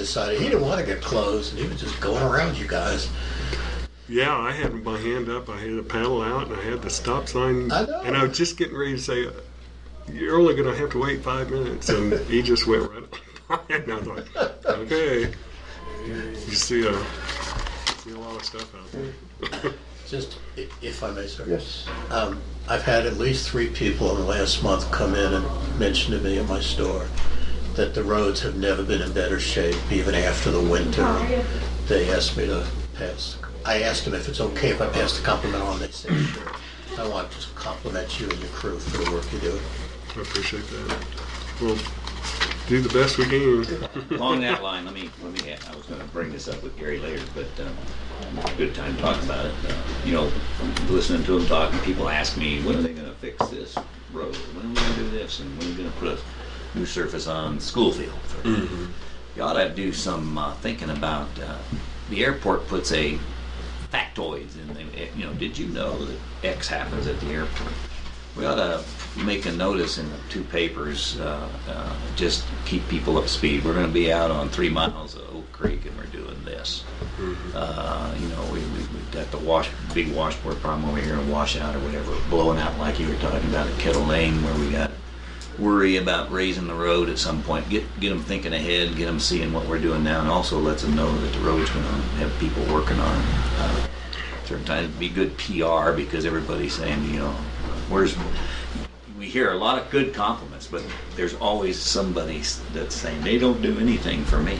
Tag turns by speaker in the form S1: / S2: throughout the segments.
S1: decided he didn't want to get closed, and he was just going around you guys.
S2: Yeah, I had my hand up, I had the paddle out, and I had the stop sign.
S1: I know.
S2: And I was just getting ready to say, You're only going to have to wait five minutes. And he just went right up. And I was like, Okay. You see a, see a lot of stuff out there.
S1: Just, i- if I may, sir.
S3: Yes.
S1: Um, I've had at least three people in the last month come in and mention to me at my store that the roads have never been in better shape, even after the winter. They asked me to pass, I asked them if it's okay if I pass the compliment on, they said, sure. I want to compliment you and your crew for the work you do.
S2: I appreciate that. We'll do the best we can.
S4: Along that line, let me, let me, add- I was gonna bring this up with Gary later, but, um, good time to talk about it. Uh, You know, listening to him talk, people ask me, when are they gonna fix this road? When are we gonna do this? And when are we gonna put a new surface on the school field? You ought to do some, uh, thinking about, uh, the airport puts a factoids in, the- you know, did you know that X happens at the airport? We ought to make a notice in the two papers, uh, uh, just keep people up to speed. We're going to be out on three miles of Oak Creek and we're doing this. Uh, you know, we, we, we've got the wash, big washboard problem over here and washout or whatever, blowing out like you were talking about at Kettle Lane where we got to worry about raising the road at some point. Get, get them thinking ahead, get them seeing what we're doing now and also lets them know that the road's going to have people working on it. Uh, certain times it'd be good PR because everybody's saying, you know, where's we hear a lot of good compliments, but there's always somebody that's saying they don't do anything for me.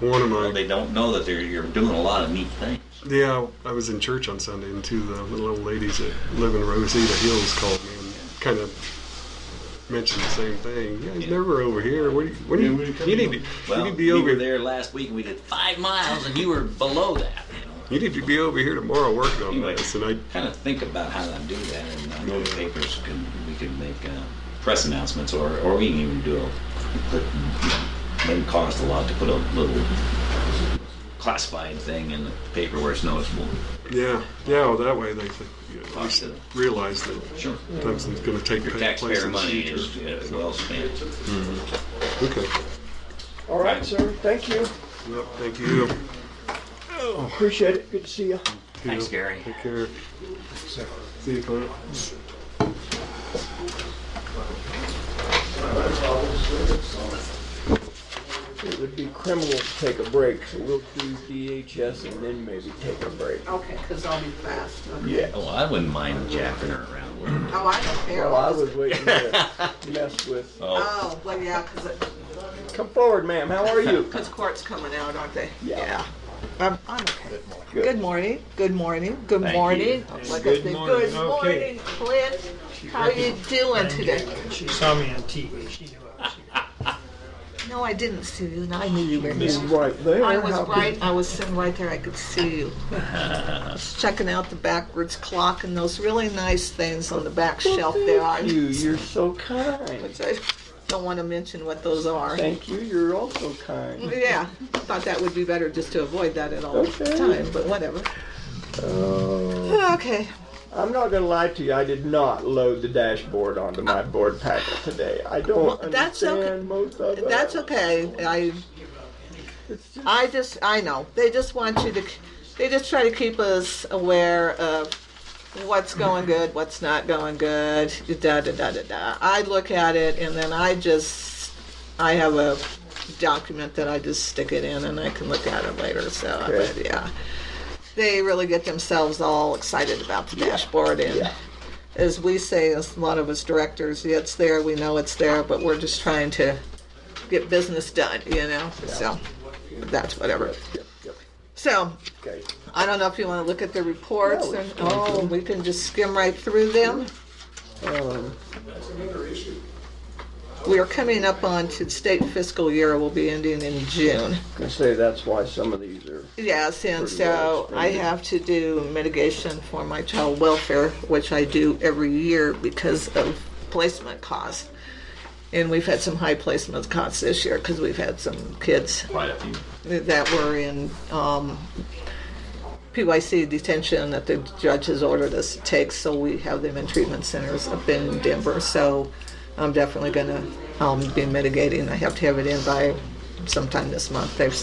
S2: One of
S4: Well,
S2: my
S4: they don't know that they're you're doing a lot of neat things.
S2: Yeah, I was in church on Sunday, and two of the little old ladies that live in Rosita Hills called me and kind of mentioned the same thing. Yeah, you
S4: Yeah.
S2: never over here. What do you, what do
S3: Yeah,
S2: you,
S3: what are you
S2: you
S3: coming
S2: need
S3: over?
S2: to,
S4: Well,
S2: you need to be
S4: we
S2: over
S4: were there last week and we did five miles, and you were below that. You know,
S2: You need to be over here tomorrow working on
S4: Anyway.
S2: this. And I,
S4: kind of think about how to do that, and I know the papers can we can make uh, press announcements, or or we can even do a. Put, it doesn't cost a lot to put a little classified thing in the paper where it's noticeable.
S2: yeah, yeah, well, that way they think, you know, we
S4: Talk to
S2: should
S4: them.
S2: realize that
S4: Sure.
S2: Thompson's going to take
S4: Your
S2: place
S4: taxpayer
S2: in the
S4: money
S2: future.
S4: is uh, well spent.
S2: Okay.
S3: All right, sir, thank you,
S2: Well, thank you.
S3: appreciate it, good to see you.
S4: Thanks, Gary.
S2: Take care. See you, Clint.
S3: It would be criminal to take a break, so we'll do DHS and then maybe take a break.
S5: Okay, because I'll be fast. okay.
S3: Yeah.
S4: Oh, I wouldn't mind jacking her around. a little.
S5: Oh, I don't care.
S3: Well, I was waiting to mess with,
S4: Oh,
S5: Oh, well, yeah, because
S3: come forward, ma'am, how are you?
S5: court's coming out, aren't they?
S3: Yeah.
S5: I'm, I'm okay.
S3: Good.
S5: Good morning, good morning, good
S4: Thank
S5: morning. Like I
S6: Good
S5: said,
S6: morning,
S5: Good
S6: okay.
S5: morning, Clint. How you doing today?
S6: She saw me on TV. She knew I was here.
S5: No, I didn't see you, and I knew you were
S3: He's
S5: here.
S3: right there.
S5: I was
S3: How could-
S5: right, I was sitting right there, I could see you. Just checking out the backwards clock and those really nice things on the back shelf there. I-
S3: Thank you, you're so kind.
S5: Which I don't want to mention what those are.
S3: Thank you, you're also kind.
S5: Yeah, I thought that would be better just to avoid that at all
S3: Okay.
S5: time, but whatever.
S3: Uh,
S5: Okay.
S3: I'm not gonna lie to you, I did not load the dashboard onto my board packet today. I don't
S5: that's okay.
S3: understand most of it.
S5: That's okay. I
S3: It's just-
S5: I just I know. They just want you to they just try to keep us aware of what's going good, what's not going good, da da da da da. I look at it and then I just I have a document that I just stick it in and I can look at it later. So
S3: Okay.
S5: but yeah. They really get themselves all excited about the dashboard and
S3: Yeah.
S5: as we say, as a lot of us directors, yeah, it's there, we know it's there, but we're just trying to get business done, you know? So, that's whatever.
S3: Yep, yep,
S5: So,
S3: okay.
S5: I don't know if you want to look at the reports,
S3: No,
S5: or,
S3: it's fine.
S5: oh, we can just skim right through them.
S3: Um,
S5: We are coming up on to state fiscal year will be ending in June.
S3: I say that's why some of these are
S5: Yes, and
S3: Pretty well
S5: so I
S3: explained.
S5: have to do mitigation for my child welfare, which I do every year because of placement costs. And we've had some high placement costs this year because we've had some kids
S4: quite a few.
S5: that were in um, PYC detention that the judge has ordered us to take, so we have them in treatment centers up in Denver. So I'm definitely going to um, be mitigating. I have to have it in by sometime this month. They've